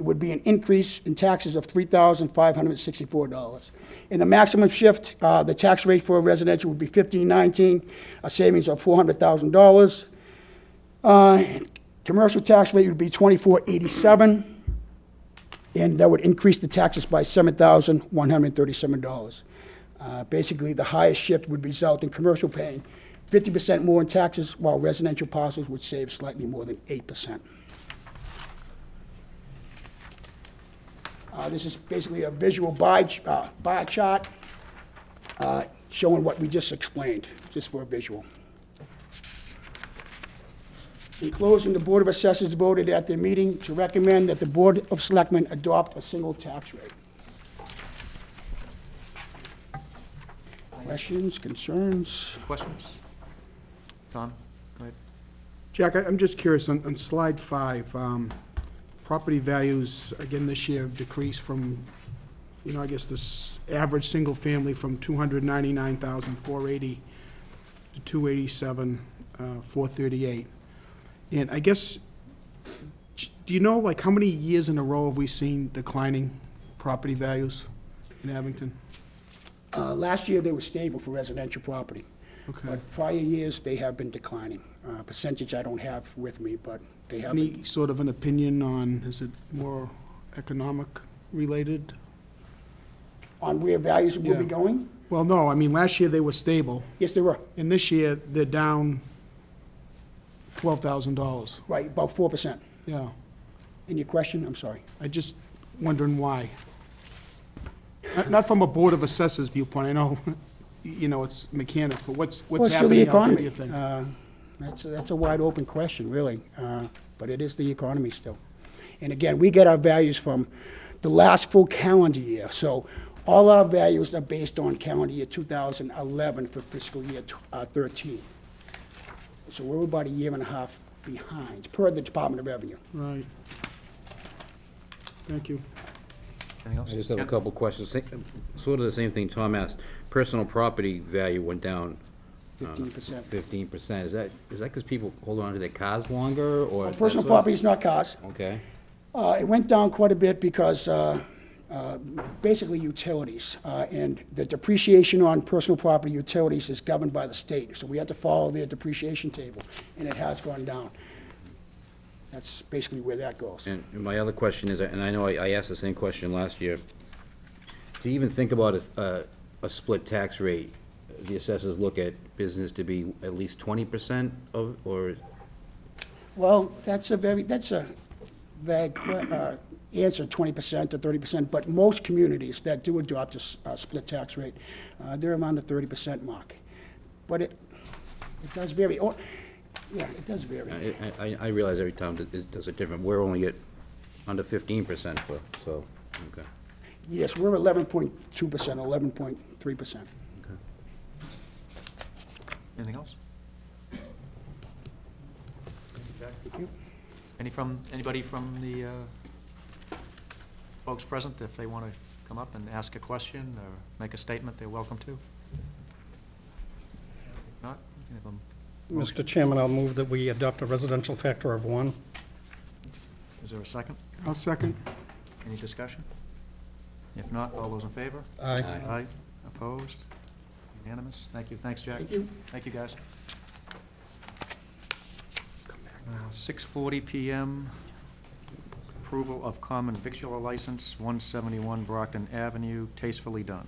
would be an increase in taxes of $3,564. In the maximum shift, uh, the tax rate for residential would be 1519, a savings of $400,000. Uh, Commercial tax rate would be 2487 and that would increase the taxes by $7,137. Uh, Basically, the highest shift would result in commercial paying 50% more in taxes, while residential parcels would save slightly more than 8%. Uh, This is basically a visual bar ch- uh, bar chart uh, showing what we just explained, just for a visual. In closing, the Board of Assessors voted at their meeting to recommend that the Board of Selectmen adopt a single tax rate. Questions, concerns? Questions? Tom, go ahead. Jack, I- I'm just curious, on, on slide five, um, property values, again, this year decreased from, you know, I guess this average single family from two hundred ninety-nine thousand four eighty to two eighty-seven, uh, four thirty-eight. And I guess, j- do you know, like, how many years in a row have we seen declining property values in Abington? Uh, Last year, they were stable for residential property. Okay. But prior years, they have been declining. Uh, Percentage I don't have with me, but they have been Any sort of an opinion on, is it more economic related? On where values will be Yeah. going? Well, no, I mean, last year they were stable, Yes, they were, and this year they're down twelve thousand dollars, right, about 4%. yeah. And your question, I'm sorry. I just wondering why. Not- Not from a Board of Assessors viewpoint, I know, you know, it's mechanic, but what's, what's Well, it's happening out there, do still you the think? economy. Uh, That's, that's a wide open question, really, Uh, but it is the economy still. And again, we get our values from the last full calendar year, so all our values are based on calendar year 2011 for fiscal year tw- uh, 13. So we're about a year and a half behind, per the Department of Revenue. Right. Thank you. Anything else? I just have a Ken? couple questions. Sa- Sort of the same thing Tom asked. Personal property value went down. Fifteen percent. Fifteen percent. Is that, is that because people hold on to their cars longer, or? that's Personal what- property is not cars. Uh, Okay. Uh, It went down quite a bit because, uh, uh, basically utilities, uh, and the depreciation on personal property utilities is governed by the state, so we had to follow their depreciation table, and it has gone down. That's basically where that goes. And and my other question is, and I know I I asked the same question last year, to even think about a s- a, a split tax rate, the assessors look at business to be at least twenty percent of, or, Well, that's a very, that's a vague que- uh, answer, 20% to 30%, but most communities that do adopt a s- a split tax rate, uh, they're around the 30% mark. But it, it does vary, Oh, yeah, it does vary. I, I- I realize every town does- does it different. We're only at under fifteen percent for, so, okay. Yes, we're eleven point two percent, eleven point three percent. Anything else? Any from, anybody from the uh, folks present, if they want to come up and ask a question or make a statement, they're welcome to? If not, we can have them, Mr. Chairman, I'll move that we adopt a residential factor of one. is there a second? I'll second. Any discussion? If not, all those in favor? Aye. Aye. Opposed? Unanimous? Thank you. Thanks, Jack. Thank you. Thank you, guys. Uh, Six forty PM, approval of common victular license, one seventy-one Brockton Avenue, tastefully done.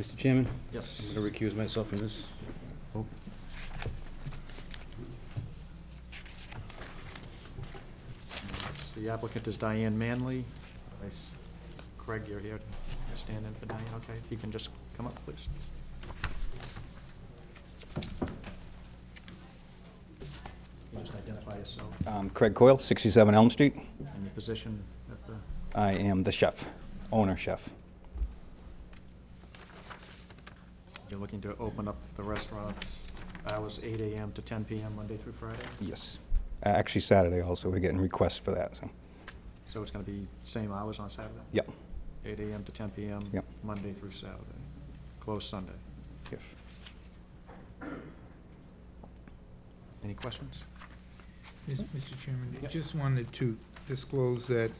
Mr. Chairman? Yes. I'm going to recuse myself from this. The applicant is Diane Manley. I s- Craig, you're here to stand in for Diane, okay? If you can just come up, please. Can you Just identify yourself Um, Craig Coyle, 67 Elm Street. and your position at the, I am the chef, owner chef. you're looking to open up the restaurant hours eight AM to ten PM, Monday through Friday? Yes. Uh, Actually, Saturday also, we're getting requests for that, so, So it's gonna be same hours on Saturday? yep, Eight AM to ten PM? Yep. Monday through Saturday. Closed Sunday. yes. Any questions? Mis- Mr. Chairman, I just wanted to disclose that